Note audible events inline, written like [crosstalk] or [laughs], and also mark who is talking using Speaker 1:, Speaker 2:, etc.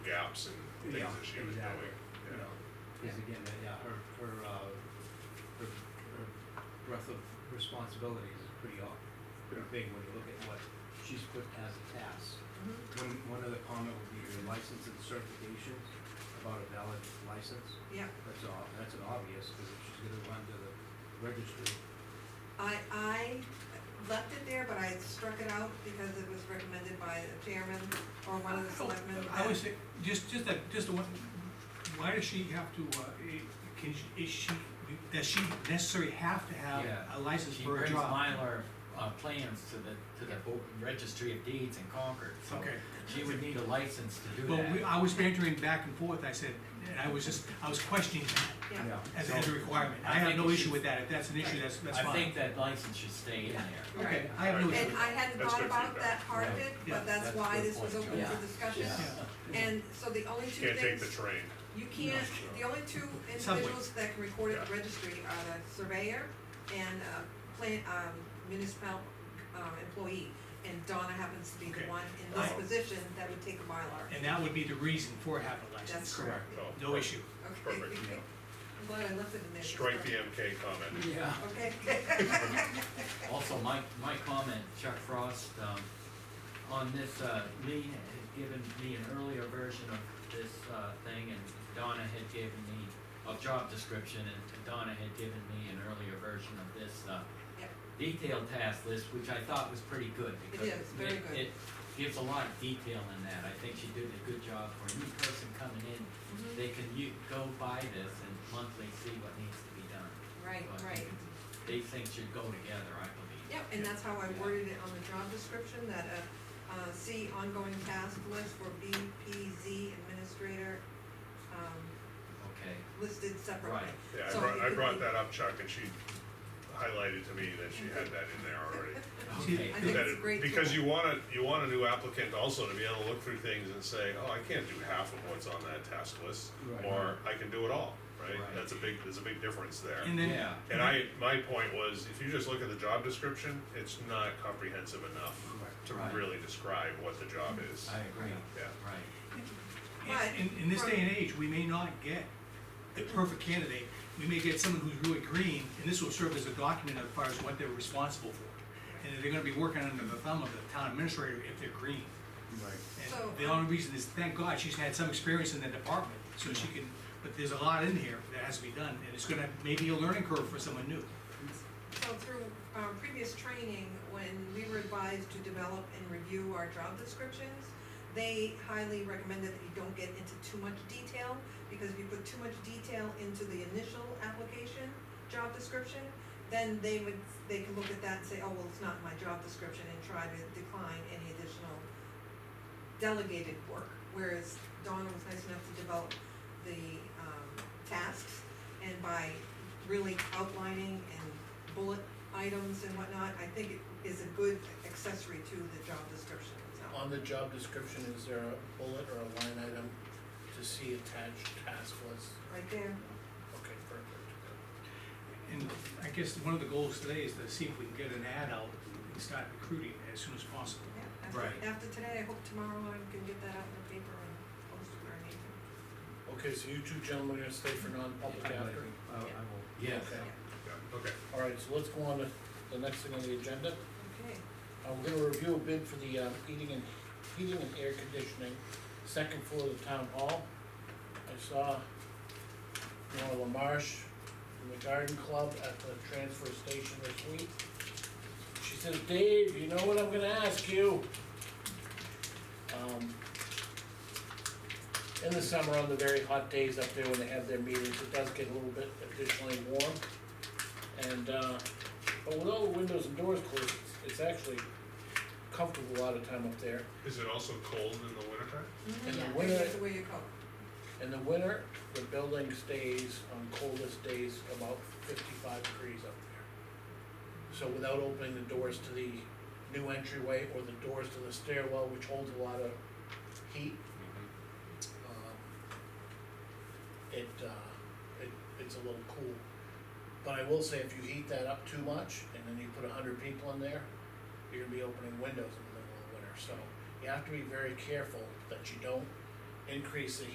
Speaker 1: jumps and things
Speaker 2: Yeah,
Speaker 1: that she was doing.
Speaker 2: exactly, you know, because
Speaker 3: Yeah.
Speaker 2: again, that- yeah, her, her, uh, her, her breadth of responsibilities is pretty off, pretty big when you look at what she's put as a task.
Speaker 3: Mm-hmm,
Speaker 2: One, one other comment would be your license and certifications, about a valid license,
Speaker 3: Yeah,
Speaker 2: that's all, that's an obvious, because if she's gonna run to the registry,
Speaker 3: I, I left it there, but I struck it out because it was recommended by the chairman or one of the selectmen.
Speaker 4: Oh, I
Speaker 3: that-
Speaker 4: would say, just, just that, just the one, why does she have to, uh, i- can, she- is she, does she necessarily have to have
Speaker 5: Yeah.
Speaker 4: a license
Speaker 5: She
Speaker 4: for a
Speaker 5: brings
Speaker 4: job?
Speaker 5: Mylar, uh, plans to the, to the Bo- registry of deeds in Concord, so
Speaker 4: Okay.
Speaker 5: she would need a license to do that.
Speaker 4: But we, I was bantering back and forth, I said, and I was just, I was questioning that
Speaker 3: Yeah,
Speaker 2: yeah.
Speaker 4: as, as a requirement.
Speaker 5: I
Speaker 4: I have
Speaker 5: think
Speaker 4: no
Speaker 5: it
Speaker 4: issue
Speaker 5: should-
Speaker 4: with that, if that's an issue, that's, that's
Speaker 5: I
Speaker 4: fine.
Speaker 5: think that license should stay in there.
Speaker 4: Okay, I have no
Speaker 1: Right.
Speaker 4: issue.
Speaker 3: and I hadn't
Speaker 1: That's
Speaker 3: thought
Speaker 1: good
Speaker 3: about
Speaker 1: feedback.
Speaker 3: that part of it,
Speaker 4: Yeah,
Speaker 3: but that's
Speaker 5: that's
Speaker 3: why
Speaker 5: a good
Speaker 3: this was
Speaker 5: point,
Speaker 3: open
Speaker 5: yeah.
Speaker 3: for discussion.
Speaker 5: Yeah.
Speaker 3: And so the only
Speaker 1: You
Speaker 3: two
Speaker 1: Can't take the
Speaker 3: things,
Speaker 1: train.
Speaker 3: you can't, the only two
Speaker 4: Subway.
Speaker 3: individuals that can record at the
Speaker 1: Yeah.
Speaker 3: registry are the surveyor and, uh, plant, um, municipal, um, employee. And Donna happens to be the
Speaker 4: Okay.
Speaker 3: one in this
Speaker 1: I-
Speaker 3: position that would take a Mylar.
Speaker 4: And that would be the reason for having a license.
Speaker 3: That's correct.
Speaker 1: Oh,
Speaker 4: No issue.
Speaker 3: Okay. [laughs]
Speaker 1: Perfect.
Speaker 3: I'm glad I left it in there.
Speaker 1: Strike the MK comment.
Speaker 5: Yeah.
Speaker 1: [laughs]
Speaker 3: Okay. Mm-hmm.
Speaker 5: Also, my, my comment, Chuck Frost, um, on this, uh, Lee had given me an earlier version of this, uh, thing, and Donna had given me a job description, and Donna had given me an earlier version of this, uh,
Speaker 3: Yep.
Speaker 5: detailed task list, which I thought was pretty good, because
Speaker 3: is, very
Speaker 5: it-
Speaker 3: good.
Speaker 5: it gives a lot of detail in that, I think she did a good job for a new person coming in,
Speaker 3: Mhm.
Speaker 5: they can u- go by this and monthly see what needs to be done.
Speaker 3: Right,
Speaker 5: So I
Speaker 3: right.
Speaker 5: think it's- These things should go together, I believe.
Speaker 3: Yep, and that's how I worded it on the job description, that, uh, uh, C, ongoing task list for BPZ administrator, um,
Speaker 5: Okay,
Speaker 3: listed separately.
Speaker 5: Right.
Speaker 1: Yeah, I
Speaker 3: So
Speaker 1: brought,
Speaker 3: it [laughs]
Speaker 1: I
Speaker 3: could
Speaker 1: brought
Speaker 3: be-
Speaker 1: that up, Chuck, and she highlighted to me that she had that in there
Speaker 3: [laughs]
Speaker 1: already.
Speaker 5: okay.
Speaker 3: I think
Speaker 1: That
Speaker 3: it's a
Speaker 1: it-
Speaker 3: great
Speaker 1: Because
Speaker 3: tool.
Speaker 1: you want a, you want a new applicant also to be able to look through things and say, oh, I can't do half of what's on that task list,
Speaker 2: Right.
Speaker 1: or I can do it all, right?
Speaker 5: Right.
Speaker 1: That's a big, there's a big difference there.
Speaker 4: And then,
Speaker 5: Yeah.
Speaker 1: And I, my point was, if you just look at the job description, it's not comprehensive enough to
Speaker 5: Right.
Speaker 1: really describe what the job is.
Speaker 5: I agree,
Speaker 1: Yeah.
Speaker 5: right.
Speaker 3: But-
Speaker 4: in, in this day and age, we may not get the perfect candidate. We may get someone who's really green, and this will serve as a document as far as what they're responsible for. And they're gonna be working under the thumb of the town administrator if they're green.
Speaker 2: Right.
Speaker 3: So,
Speaker 4: And the
Speaker 3: um,
Speaker 4: only reason is, thank God, she's had some experience in that department, so she can, but there's a lot in here that has to be done, and it's gonna, maybe a learning curve for someone new.
Speaker 3: So through um, previous training, when we were advised to develop and review our job descriptions, they highly recommended that you don't get into too much detail, because if you put too much detail into the initial application, job description, then they would, they could look at that and say, oh, well, it's not my job description, and try to decline any additional delegated work. Whereas Donna was nice enough to develop the um, tasks, and by really outlining and bullet items and whatnot, I think it is a good accessory to the job description itself.
Speaker 6: On the job description, is there a bullet or a line item to see attached task list?
Speaker 3: Right there,
Speaker 6: Okay, perfect.
Speaker 4: And I guess one of the goals today is to see if we can get an ad out and start recruiting as soon as possible.
Speaker 3: yeah, after,
Speaker 5: Right.
Speaker 3: after today, I hope tomorrow I can get that out in the paper and post it or anything.
Speaker 6: Okay, so you two gentlemen are gonna stay for non-public
Speaker 2: I
Speaker 6: after?
Speaker 2: will,
Speaker 5: Yes.
Speaker 6: Okay,
Speaker 1: Yeah, okay.
Speaker 6: all right, so let's go on to the next thing on the agenda.
Speaker 3: Okay,
Speaker 6: Uh, we're gonna review a bid for the, uh, heating and, heating and air conditioning, second floor of the town hall. I saw Nora Lamarche from the garden club at the transfer station this week. She says, Dave, you know what I'm gonna ask you? Um, in the summer, on the very hot days up there when they have their meetings, it does get a little bit additionally warm. And, uh, but with all the windows and doors closed, it's- it's actually comfortable a lot of time up there.
Speaker 1: Is it also cold in the wintertime?
Speaker 3: Mm-hmm.
Speaker 6: In the
Speaker 3: Maybe
Speaker 6: winter,
Speaker 3: that's the way you go.
Speaker 6: in the winter, the building stays on coldest days about fifty-five degrees up there. So without opening the doors to the new entryway or the doors to the stairwell, which holds a lot of heat, um, it, uh, it, it's a little cool. But I will say, if you heat that up too much, and then you put a hundred people in there, you're gonna be opening windows in the middle of the winter, so you have to be very careful that you don't increase the